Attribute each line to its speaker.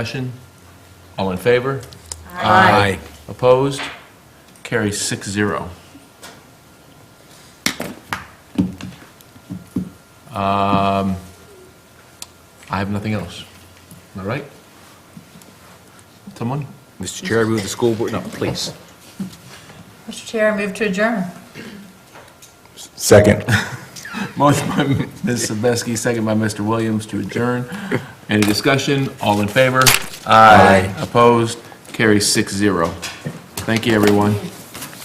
Speaker 1: Discussion? All in favor?
Speaker 2: Aye.
Speaker 1: Opposed? Carries six zero. Um, I have nothing else. Am I right? Someone?
Speaker 2: Mr. Chair, I move the school board, no, please.
Speaker 3: Mr. Chair, I move to adjourn.
Speaker 4: Second.
Speaker 1: Motion by Ms. Sebeski, second by Mr. Williams to adjourn. Any discussion? All in favor?
Speaker 4: Aye.
Speaker 1: Opposed? Carries six zero. Thank you, everyone.